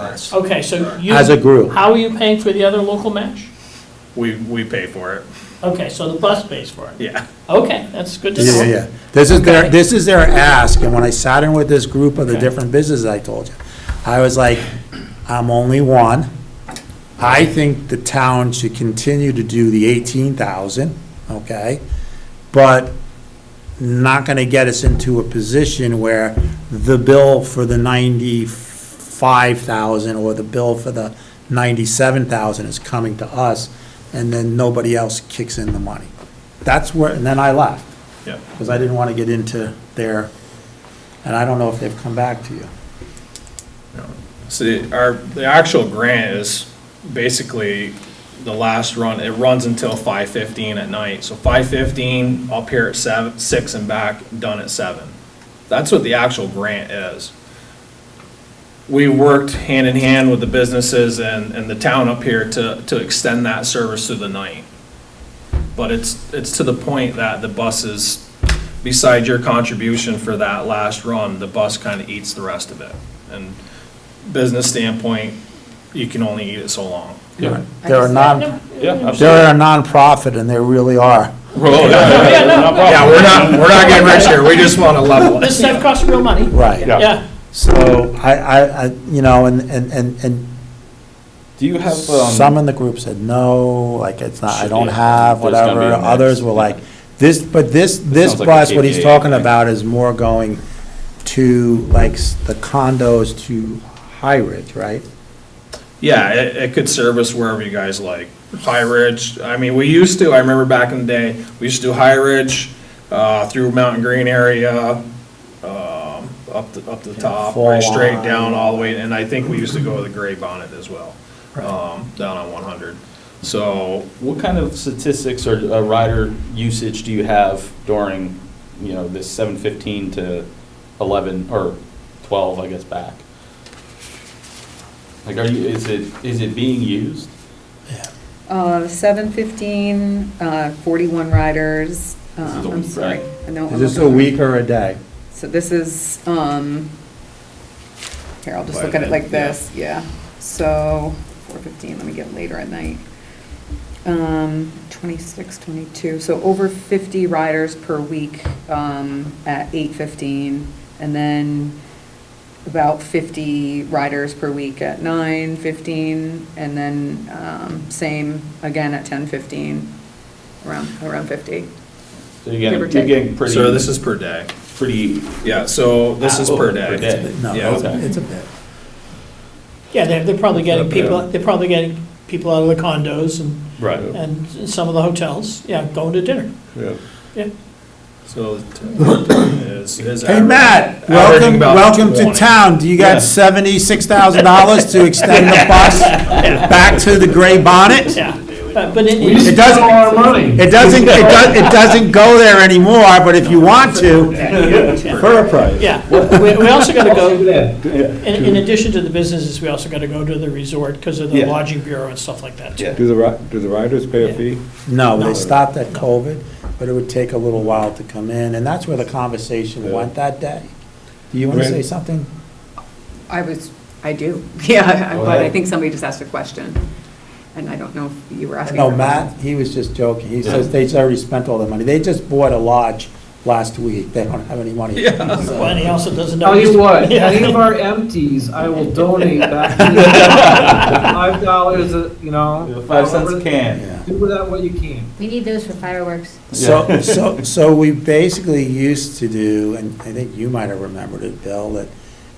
us, Okay, so you. As a group. How are you paying for the other local match? we, we pay for it, Okay, so the bus pays for it. yeah. Okay, that's good to know. Yeah, yeah, yeah. This is their, Okay. this is their ask, and when I sat in with this group of the Okay. different businesses I told you, I was like, I'm only one. I think the town should continue to do the eighteen thousand, okay? But not gonna get us into a position where the bill for the ninety-five thousand or the bill for the ninety-seven thousand is coming to us, and then nobody else kicks in the money. That's where, and then I left Yeah. because I didn't want to get into their, and I don't know if they've come back to you. So the- our, the actual grant is basically the last run, it runs until five fifteen at night. So five fifteen, up here at seven, six and back, done at seven. That's what the actual grant is. We worked hand in hand with the businesses and, and the town up here to, to extend that service through the night. But it's, it's to the point that the buses, beside your contribution for that last run, the bus kind of eats the rest of it. And business standpoint, you can only eat it so long. They're they're a non, Yeah, they're a nonprofit and they really are. Yeah, we're not, we're not getting rich here, we just want to level This it. stuff costs real money. Right. Yeah. So I, I, I, you know, and, and, and, and Do you have, um, some in the group said, no, like, it's not, I don't Yeah, have, there's gotta be whatever. a mix, Others were yeah. like, this, but this, this sounds like a bus, what he's KPA, talking right? about is more going to, like, s- the condos to High Ridge, right? Yeah, it, it could service wherever you guys like. High Ridge, I mean, we used to, I remember back in the day, we used to do High Ridge, uh, through Mountain Green area, um, up the, up the top, Full right straight line. down all the way, and I think we used to go to the Gray Bonnet as well, um, down on one hundred. So, what kind of statistics or uh, rider usage do you have during, you know, this seven fifteen to eleven, or twelve, I guess, back? Like, are you, is it, is it being used? Uh, 7:15, uh, 41 riders. Uh, This is a I'm week, sorry. right? I know Is I'm this a looking- week or a day? So this is, um, here, I'll just look at it like this, yeah. So 4:15, let me get later at night. Um, 26, 22, so over 50 riders per week um, at 8:15. And then about 50 riders per week at 9:15. And then um, same again at 10:15, around, around 50. So you're getting, Give or you're take. getting pretty. so this is per day. Pretty. Yeah, so this is per day. Per day. No, Yeah. it's a- it's a bit. Yeah, they're, they're probably getting people, they're probably getting people out of the condos and, Right. and some of the hotels, yeah, going to dinner. Yeah. So is, is. Hey, Matt, averaging welcome, about welcome to 20. town. Do you Yeah. got seventy-six thousand dollars to extend the bus back to the gray bonnet? Yeah, Uh, but but it- It doesn't, it doesn't, it does it doesn't go there anymore, but if you want to, for a price. Yeah, we, we also gotta go, in, in addition to the businesses, we also gotta go to the resort because of the Yeah. lodging bureau and stuff like that too. Yeah. Do the, ri- do the riders pay a fee? No, they stopped at COVID, but it would take a little while to come in, and that's where the conversation went that day. Do you wanna Right. say something? I was, I do, yeah, Go but I ahead. think somebody just asked a question, and I don't know if you were asking. No, for- Matt, he was just joking. He says they already spent all their money. They just bought a lodge last week. They don't have any money. Well, and he also doesn't know. Tell you what, Yeah. any of our empties, I will donate back to you. Five dollars, a you know. Five cents a however- can. Yeah. Do with that what you can. We need those for fireworks. So, so, so we basically used to do, and I think you might have remembered it, Bill, that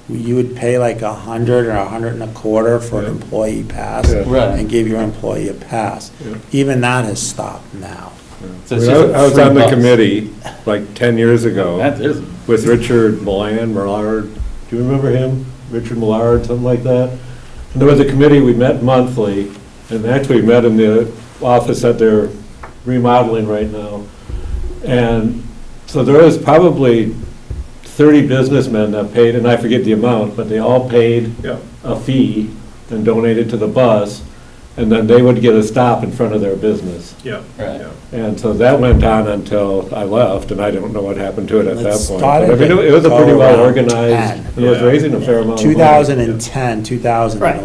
you would pay like a hundred or a hundred and a quarter for an employee pass. Yeah. Right. And give your employee a pass. Yeah. Even that has stopped now. So it's When just I I was free on the bus. committee like 10 years That ago is, with Richard Milan, Millard, do you remember him? Richard Millard, something like that? And there was a committee, we met monthly, and actually we met in the office that they're remodeling right now. And so there was probably 30 businessmen that paid, and I forget the amount, but they all paid Yeah. a fee and donated to the bus, and then they would get a stop in front of their business. Yeah, Right. yeah. And so that went on until I left, and I don't know what happened to it at It that point. started But I mean, It was a to pretty go well around organized, 10. it was Yeah. raising a fair amount of money. 2010, 2011. Right.